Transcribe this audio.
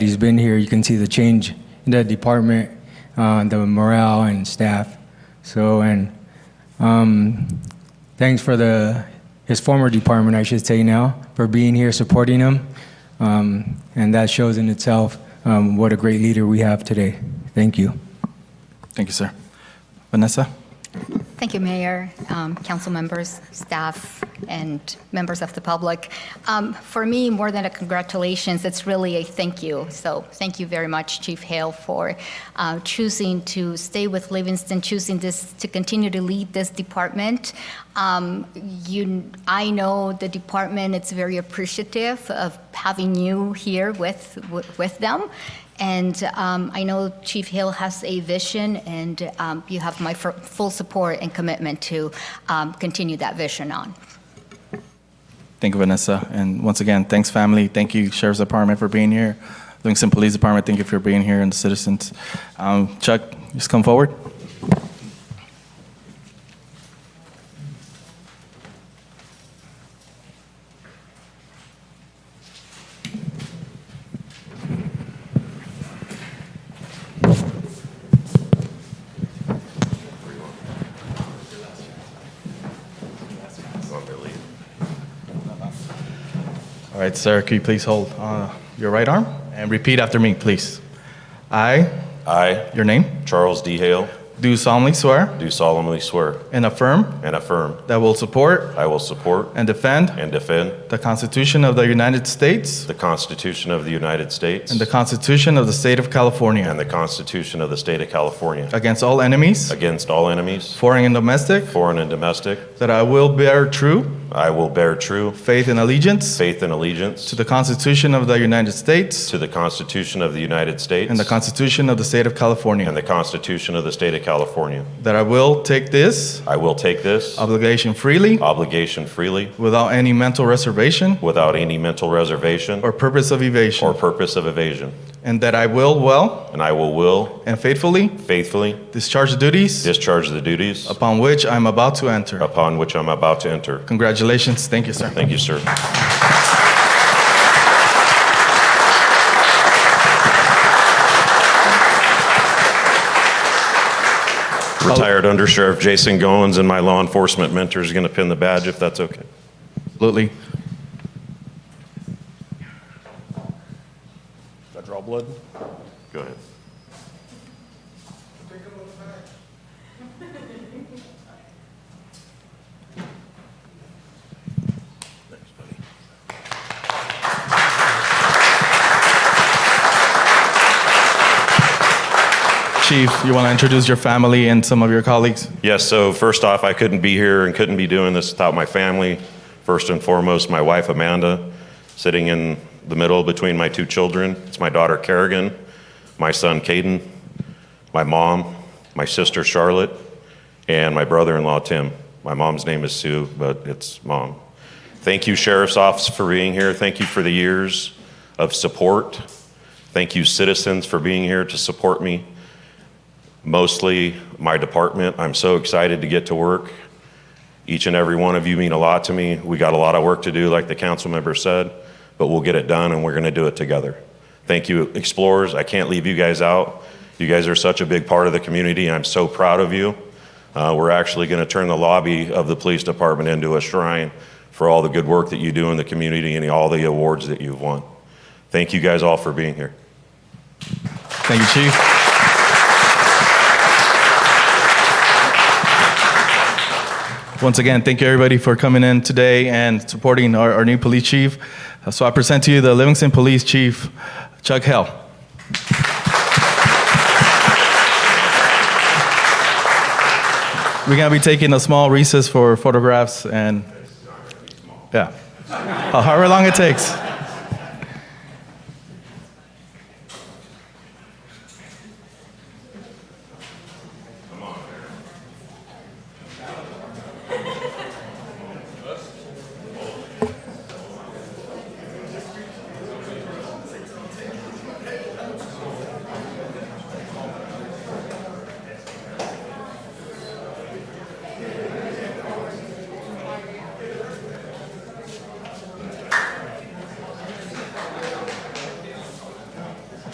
He's been here, you can see the change in the department, uh, the morale and staff. So, and um, thanks for the, his former department, I should say now, for being here, supporting him. Um, And that shows in itself um, what a great leader we have today. Thank you. Thank you, sir. Vanessa? Thank you, Mayor, um, council members, staff, and members of the public. Um, For me, more than a congratulations, it's really a thank you. So thank you very much, Chief Hale, for uh, choosing to stay with Livingston, choosing this, to continue to lead this department. Um, You, I know the department, it's very appreciative of having you here with, with them. And um, I know Chief Hill has a vision, and um, you have my fir- full support and commitment to um, continue that vision on. Thank you, Vanessa. And once again, thanks, family. Thank you, Sheriff's Department, for being here. Livingston Police Department, thank you for being here, and the citizens. Um, Chuck, just come forward. All right, sir, could you please hold uh, your right arm and repeat after me, please? I, I, your name, Charles D. Hale, do solemnly swear do solemnly swear and affirm and affirm that I will support I will support and defend and defend the Constitution of the United States the Constitution of the United States and the Constitution of the State of and California the Constitution of the State of California against all enemies, against all enemies, foreign and domestic, foreign and domestic. that I will bear true I will bear true faith and allegiance faith and allegiance To the Constitution of the United States to the Constitution of the United States and the Constitution of the State of California. and the Constitution of the State of California. That I will take this I will take this obligation freely, obligation freely without any mental reservation without any mental reservation or purpose of or evasion. purpose of evasion. And that I will well And I will will and faithfully faithfully discharge the duties discharge the duties upon which I am about to enter. upon which I'm about to enter. Congratulations. Thank you, sir. Thank you, sir. Retired Under Sheriff Jason Goins and my law enforcement mentor is going to pin the badge if that's okay. Absolutely. I draw blood? Go ahead. Chief, you want to introduce your family and some of your colleagues? Yes, so first off, I couldn't be here and couldn't be doing this without my family. First and foremost, my wife Amanda, sitting in the middle between my two children. It's my daughter Kerrigan, my son Caden, my mom, my sister Charlotte, and my brother in law Tim. My mom's name is Sue, but it's mom. Thank you, Sheriff's Office, for being here. Thank you for the years of support. Thank you, citizens, for being here to support me mostly my department. I'm so excited to get to work. Each and every one of you mean a lot to me. We got a lot of work to do, like the council member said, but we'll get it done and we're going to do it together. Thank you, explorers. I can't leave you guys out. You guys are such a big part of the community. I'm so proud of you. Uh, we're actually going to turn the lobby of the police department into a shrine for all the good work that you do in the community and all the awards that you've won. Thank you guys all for being here. Thank you, Chief. Once again, thank you everybody for coming in today and supporting our, our new police chief. Uh, So I present to you the Livingston Police Chief, Chuck Hell. We're gonna be taking a small recess for photographs and, yeah. However long it takes.